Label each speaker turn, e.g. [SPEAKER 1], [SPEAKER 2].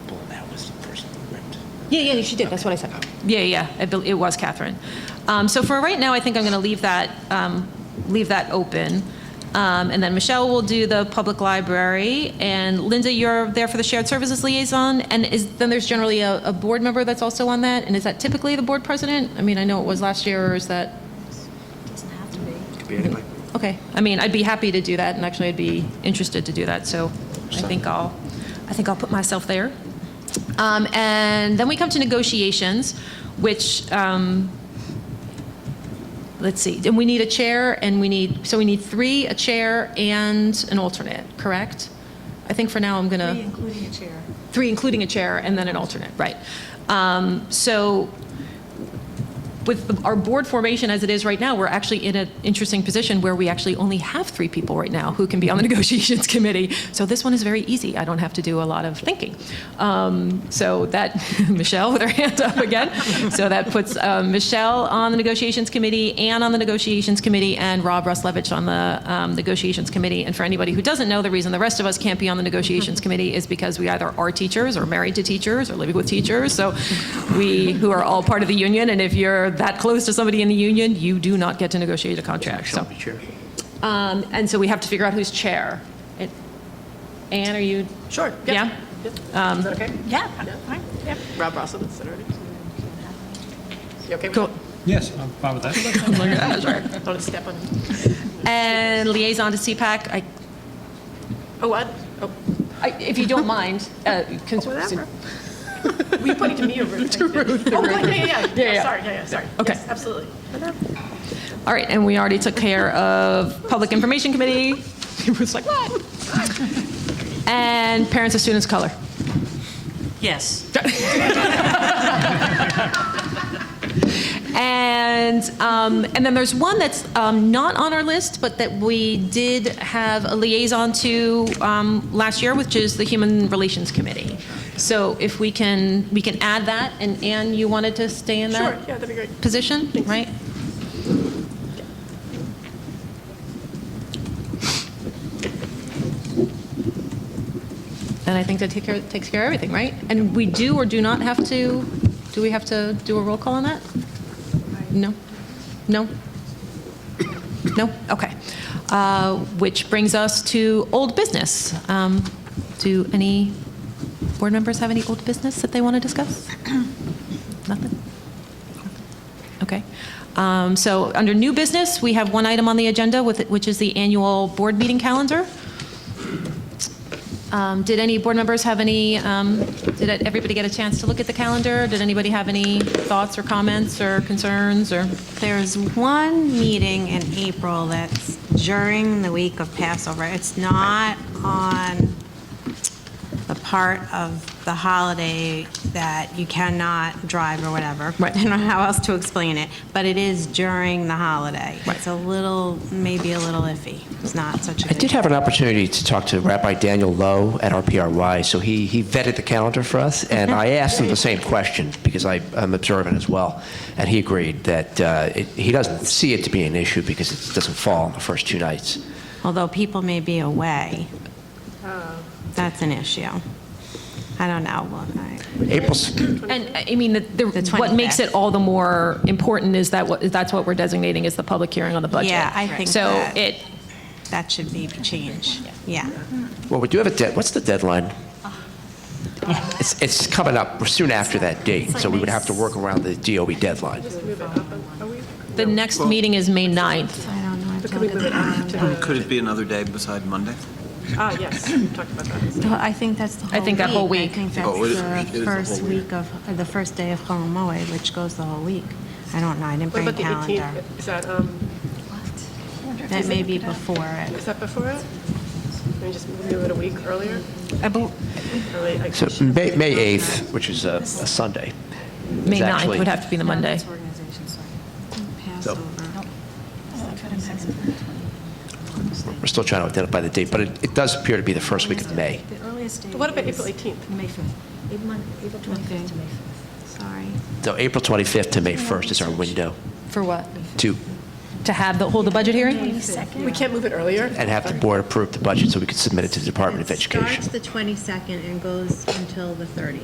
[SPEAKER 1] Yeah, yeah, she did, that's what I said.
[SPEAKER 2] Yeah, yeah, I bel- it was Catherine. Um, So for right now, I think I'm going to leave that, um, leave that open. Um, And then Michelle will do the public library, and Linda, you're there for the shared services liaison, and is, then there's generally a, a board member that's also on that, and is that typically the board president? I mean, I know it was last year, or is that,
[SPEAKER 3] Could be anybody.
[SPEAKER 2] okay. I mean, I'd be happy to do that, and actually, I'd be interested to do that, so I think I'll, I think I'll put myself there. Um, And then we come to negotiations, which um, let's see, and we need a chair, and we need, so we need three, a chair and an alternate, correct? I think for now, I'm gonna. Three, including a chair. Three, including a chair, and then an alternate, right. Um, So with the- our board formation as it is right now, we're actually in an interesting position where we actually only have three people right now who can be on the negotiations committee. So this one is very easy. I don't have to do a lot of thinking. Um, So that, Michelle with her hand up again. So that puts um, Michelle on the negotiations committee, Ann on the negotiations committee, and Rob Ruslevich on the um, negotiations committee. And for anybody who doesn't know, the reason the rest of us can't be on the negotiations committee is because we either are teachers or married to teachers or living with teachers. So we, who are all part of the union, and if you're that close to somebody in the union, you do not get to negotiate a contract. So,
[SPEAKER 3] Shall be chair.
[SPEAKER 2] um, and so we have to figure out who's chair. It- Anne, are you?
[SPEAKER 4] Sure.
[SPEAKER 2] Yeah?
[SPEAKER 4] Is that okay?
[SPEAKER 5] Yeah, fine.
[SPEAKER 4] Yeah. Rob Ross will consider it. You okay? with
[SPEAKER 2] Cool.
[SPEAKER 6] Yes, I'm fine with that.
[SPEAKER 2] I'm like, "Yeah, sure."
[SPEAKER 4] that? Don't step on.
[SPEAKER 2] And liaison to CPAC, I
[SPEAKER 4] Oh, I, oh,
[SPEAKER 2] I- If you don't mind. uh, cons-
[SPEAKER 4] Whatever. were you pointing to me or Ruth? Oh, good, yeah, yeah, yeah.
[SPEAKER 2] Yeah, yeah.
[SPEAKER 4] Yeah, sorry, yeah, yeah, sorry.
[SPEAKER 2] Okay.
[SPEAKER 4] Yes, Absolutely.
[SPEAKER 2] All right, and we already took care of Public Information Committee. It was like, what? And Parents of Students of Color.
[SPEAKER 5] Yes.
[SPEAKER 2] And, um, and then there's one that's um, not on our list, but that we did have a liaison to um, last year, which is the Human Relations Committee. So if we can, we can add that, and Anne, you wanted to stay in
[SPEAKER 4] Sure,
[SPEAKER 2] that
[SPEAKER 4] yeah, that'd be great.
[SPEAKER 2] position, right? And I think that take care- takes care of everything, right? And we do or do not have to, do we have to do a roll call on that? No? No? No? Okay. Uh, Which brings us to old business. Um, Do any board members have any old business that they want to discuss? Nothing? Okay. Um, So under new business, we have one item on the agenda, with which is the annual board meeting calendar. Um, Did any board members have any, um, did everybody get a chance to look at the calendar? Did anybody have any thoughts or comments or concerns or?
[SPEAKER 5] There's one meeting in April that's during the week of Passover. It's not on the part of the holiday that you cannot drive or whatever.
[SPEAKER 2] Right.
[SPEAKER 5] I don't know how else to explain it, but it is during the holiday. It's a little, maybe a little iffy. It's not such a
[SPEAKER 3] I
[SPEAKER 5] good.
[SPEAKER 3] did have an opportunity to talk to Rabbi Daniel Lowe at RPRY, so he, he vetted the calendar for us, and I asked him the same question, because I, I'm observant as well, and he agreed that uh, it, he doesn't see it to be an issue because it doesn't fall on the first two nights.
[SPEAKER 5] although people may be away. Oh. That's an issue. I don't know. Well, I-
[SPEAKER 3] April's,
[SPEAKER 2] And uh, I mean, the- the-
[SPEAKER 5] The
[SPEAKER 2] what makes it
[SPEAKER 5] 25th.
[SPEAKER 2] all the more important is that, what- that's what we're designating as the public hearing on the budget.
[SPEAKER 5] Yeah, I think
[SPEAKER 2] So
[SPEAKER 5] that-
[SPEAKER 2] it,
[SPEAKER 5] That should be changed. Yeah.
[SPEAKER 3] well, we do have a dead, what's the deadline? It's, it's coming up soon after that date, so we would have to work around the DOE deadline.
[SPEAKER 4] Oh,
[SPEAKER 2] the next meeting is May 9th.
[SPEAKER 5] I don't know. I have to
[SPEAKER 4] Could we
[SPEAKER 5] look
[SPEAKER 4] move it
[SPEAKER 5] at
[SPEAKER 4] up to the?
[SPEAKER 7] Could it be another day beside Monday?
[SPEAKER 4] Ah, yes, we talked about that.
[SPEAKER 5] the- I think that's the whole
[SPEAKER 2] I think that whole week.
[SPEAKER 5] I think
[SPEAKER 7] Oh, it is-
[SPEAKER 5] that's
[SPEAKER 7] it is
[SPEAKER 5] the
[SPEAKER 7] the
[SPEAKER 5] first
[SPEAKER 7] whole week.
[SPEAKER 5] week of, or the first day of Holomoe, which goes the whole week. I don't know. I didn't
[SPEAKER 4] What
[SPEAKER 5] bring a
[SPEAKER 4] about the
[SPEAKER 5] calendar.
[SPEAKER 4] 18th? Is that, um,
[SPEAKER 5] That may be before
[SPEAKER 4] is
[SPEAKER 5] it.
[SPEAKER 4] that before it? Can we just move it a week earlier? Or late, like-
[SPEAKER 3] So May, May 8th, which is a, a Sunday. is
[SPEAKER 2] May 9th
[SPEAKER 3] actually-
[SPEAKER 2] would have to be the Monday.
[SPEAKER 5] Passover.
[SPEAKER 3] We're still trying to identify the date, but it, it does appear to be the first week of May.
[SPEAKER 8] The earliest date
[SPEAKER 4] What about
[SPEAKER 8] is
[SPEAKER 4] April 18th?
[SPEAKER 8] May 5th. April mon- April 25th to May 5th.
[SPEAKER 5] Sorry.
[SPEAKER 3] So April 25th to May 1st is our window
[SPEAKER 2] For what?
[SPEAKER 3] to,
[SPEAKER 2] To have the, hold the budget hearing?
[SPEAKER 8] 22nd.
[SPEAKER 4] We can't move it earlier?
[SPEAKER 3] and have the board approve the budget so we can submit it to the Department of
[SPEAKER 5] It
[SPEAKER 3] Education.
[SPEAKER 5] Starts the 22nd and goes until the 30th.